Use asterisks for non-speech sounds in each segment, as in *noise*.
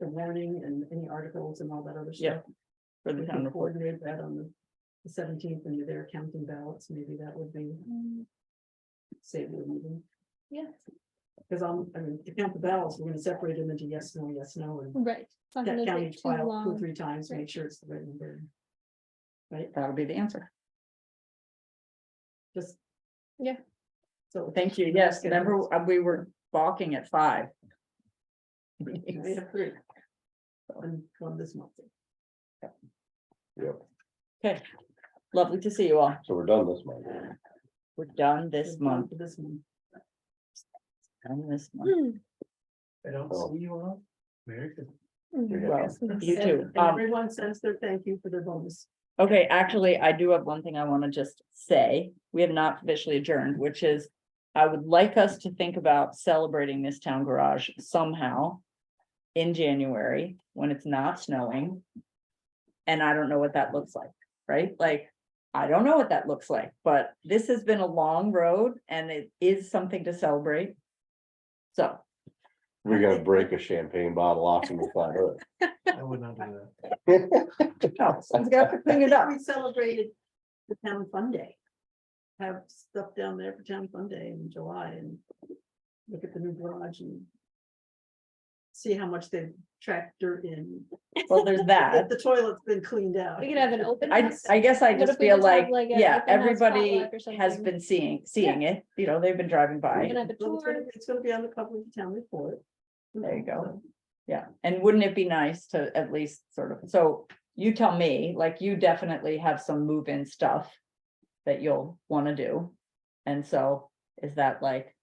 the warning and any articles and all that other Yeah, stuff. for the We town can report. coordinate that on the seventeenth and they're counting ballots, maybe that would be save the meeting. Mm, Yeah. Because I'm, I mean, to count the ballots, we're gonna separate them into yes, no, yes, no, and Hmm. Right. It's not that gonna count take each too file two, long. *clears throat* three times, Right. make sure it's the right number. That'll be the answer. Just. Yeah. So. Thank you. Yes, remember, uh, we were balking at five. We have three. And one this month. Yep, Lovely to see you all. so we're done this month. We're done this month, This month. done this month. Hmm. I don't Oh. see you all. Merry Christmas. Mhm. Well, Yes, yes. You And- too. and Um, Everyone sends their thank you for their bonus. Okay, actually, I do have one thing I want to just say. We have not officially adjourned, which is I would like us to think about celebrating this town garage somehow in January when it's not snowing. And I don't know what that looks like, right? Like, I don't know what that looks like, but this has been a long road and it is something to celebrate. So, We're gonna break a champagne bottle off and we'll find out. I would not do that. no, someone's got to clean it up. We celebrated the town fun day. Have stuff down there for town fun day in July and look at the new garage and see how much they've tracked dirt in. Well, there's that. That the toilet's been cleaned out. We could have an open. I, house. I guess I What just if we feel just have like, like a yeah, open house everybody potluck or has something? been seeing, seeing it, you know, they've been driving We by. can have a Well, It's gonna tour. it's gonna be on the cover of the town report. There you go. Yeah, and wouldn't it be nice to at least sort of, so you tell me, like, you definitely have some move-in stuff that you'll wanna do. And so, is that like,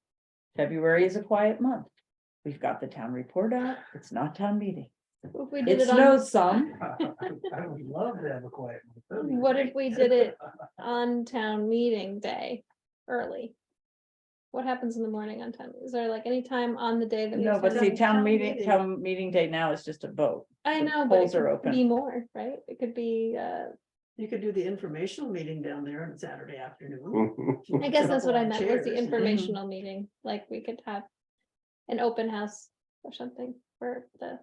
February is a quiet month? We've got the town report out, it's not town meeting. If we did It it on, snows some, *laughs* I would love to have a *laughs* quiet. month. That'd be what great. if we did it on town meeting day early? What happens in the morning on town? Is there like any time on the day that? we no, have but see, town- town town meeting, meeting. town meeting day now is just a vote. I the know, but it polls are could open. be more, right? It could be, uh, You could do the informational meeting down there on Saturday afternoon. Well, Hmm. I guess that's what I meant, was the Mm-hmm. Chairs. informational meeting, like we could have an open house or something for the,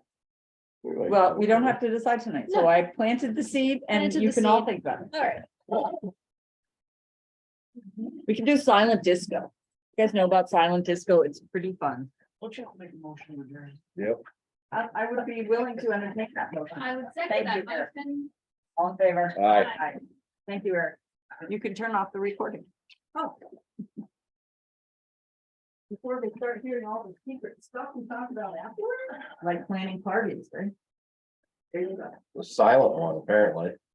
Well, we don't have to decide tonight, so No. I planted the seed and Planted you the can all seed. think about it. all right. We can do silent disco. You guys know about silent disco, it's pretty fun. Won't you make a motion to adjourn? I, I would be willing to entertain that motion. I would Thank second that you. that All in favor? All right. Aye. Thank you, Eric. You can turn off the recording. Oh. Before they start hearing all the secret stuff we talk about afterwards. Like planning parties, right? There you go. Silent one, apparently.